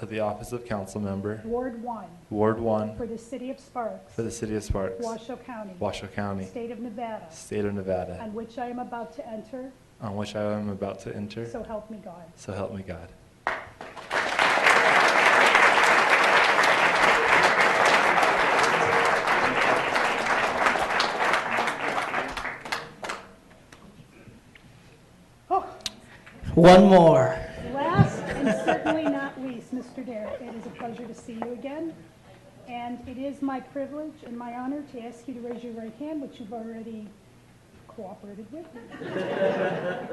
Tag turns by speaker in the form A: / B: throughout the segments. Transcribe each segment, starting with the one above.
A: of the office of council member,
B: Ward 1,
A: Ward 1,
B: for the city of Sparks,
A: for the city of Sparks,
B: Washoe County,
A: Washoe County,
B: state of Nevada,
A: state of Nevada,
B: on which I am about to enter,
A: on which I am about to enter,
B: so help me God.
A: so help me God.
B: Oh,
C: One more.
B: Last and certainly not least, Mr. Dare, it is a pleasure to see you again. And it is my privilege and my honor to ask you to raise your right hand, which you've already cooperated with.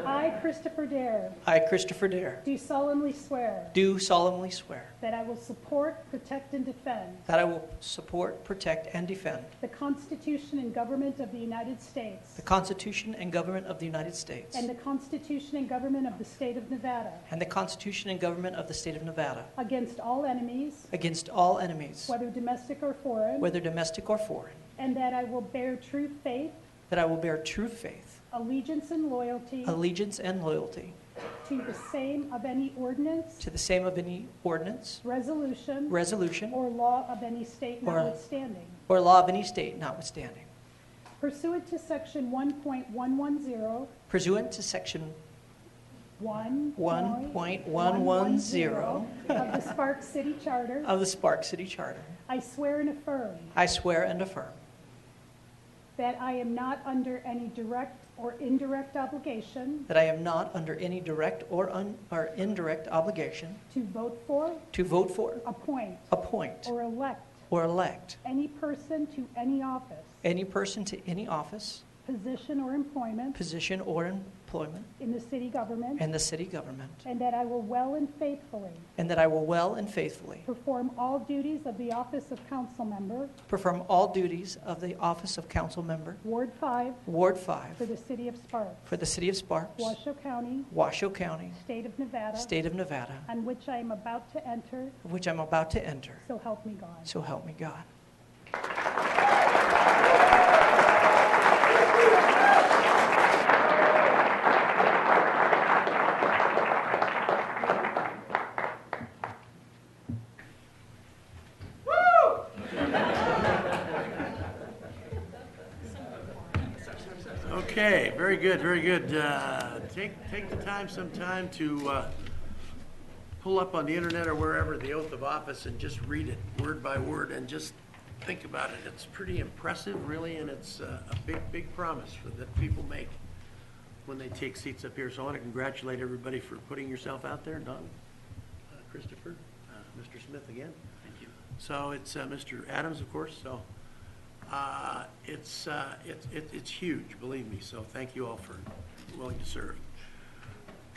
B: I, Christopher Dare,
C: I, Christopher Dare,
B: do solemnly swear
C: do solemnly swear
B: that I will support, protect, and defend
C: that I will support, protect, and defend
B: the Constitution and government of the United States
C: the Constitution and government of the United States
B: and the Constitution and government of the state of Nevada
C: and the Constitution and government of the state of Nevada
B: against all enemies,
C: against all enemies,
B: whether domestic or foreign,
C: whether domestic or foreign,
B: and that I will bear true faith
C: that I will bear true faith,
B: allegiance and loyalty
C: allegiance, and loyalty
B: to the same of any ordinance,
C: to the same of any ordinance,
B: resolution,
C: resolution,
B: or law of any state
C: Or-
B: notwithstanding.
C: or law of any state notwithstanding,
B: Pursuant to Section 1.110,
C: pursuant to Section
B: 1.110 of the Sparks City Charter,
C: of the Spark City Charter.
B: I swear and affirm
C: I swear and affirm
B: that I am not under any direct or indirect obligation
C: That I am not under any direct or un- or indirect obligation
B: to vote for,
C: to vote for,
B: appoint,
C: appoint,
B: or elect
C: or elect
B: any person to any office,
C: any person to any office,
B: position, or employment
C: position, or employment
B: in the city government,
C: in the city government,
B: and that I will well and faithfully
C: and that I will well and faithfully
B: Perform all duties of the office of council member,
C: perform all duties of the office of council member,
B: Ward 5,
C: Ward
B: for
C: 5,
B: the city of Sparks,
C: for the city of Sparks,
B: Washoe County,
C: Washoe County,
B: state of Nevada,
C: state of Nevada,
B: on which I am about to enter,
C: which I'm about to enter.
B: so help me God.
C: So help me God.
D: Okay, very good, very good. Uh, Take, take the time, some time to uh, pull up on the internet or wherever the oath of office and just read it word by word and just think about it. It's pretty impressive, really, and it's uh, a big, big promise for- that people make when they take seats up here. So I want to congratulate everybody for putting yourself out there, Don, uh, Christopher, uh, Mr. Smith again. Thank you. So it's uh, Mr. Adams, of course, so uh, It's, uh, it's, it's it's huge, believe me, so thank you all for willing to serve.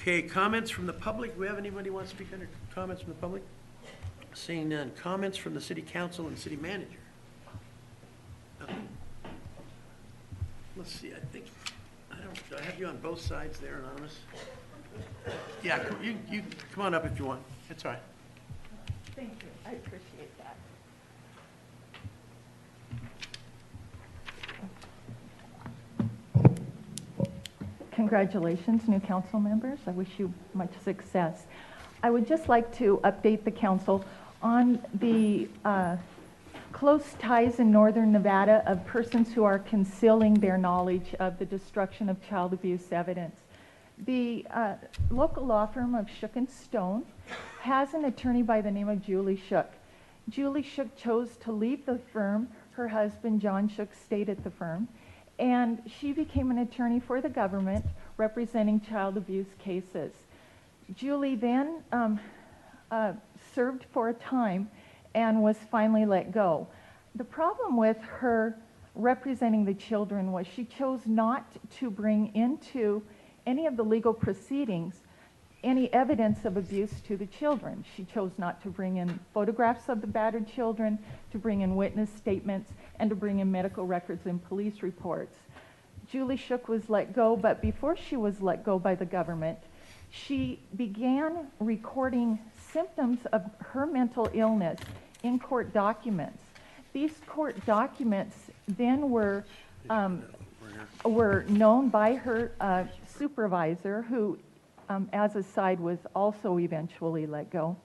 D: Okay, comments from the public? Do we have anybody who wants to speak under comments from the public? Seeing none. Comments from the city council and city manager? Nothing. Let's see, I think, I don't, do I have you on both sides there, Anonymous? Yeah, come- you, you, come on up if you want. It's all right.
E: Thank you, I appreciate that. Congratulations, new council members. I wish you much success. I would just like to update the council on the uh, close ties in northern Nevada of persons who are concealing their knowledge of the destruction of child abuse evidence. The uh, local law firm of Shook and Stone has an attorney by the name of Julie Shook. Julie Shook chose to leave the firm. Her husband, John Shook, stayed at the firm. And she became an attorney for the government representing child abuse cases. Julie then um, uh, served for a time and was finally let go. The problem with her representing the children was she chose not to bring into any of the legal proceedings any evidence of abuse to the children. She chose not to bring in photographs of the battered children, to bring in witness statements, and to bring in medical records and police reports. Julie Shook was let go, but before she was let go by the government, she began recording symptoms of her mental illness in court documents. These court documents then were um, were known by her uh, supervisor, who, um, as a side, was also eventually let go.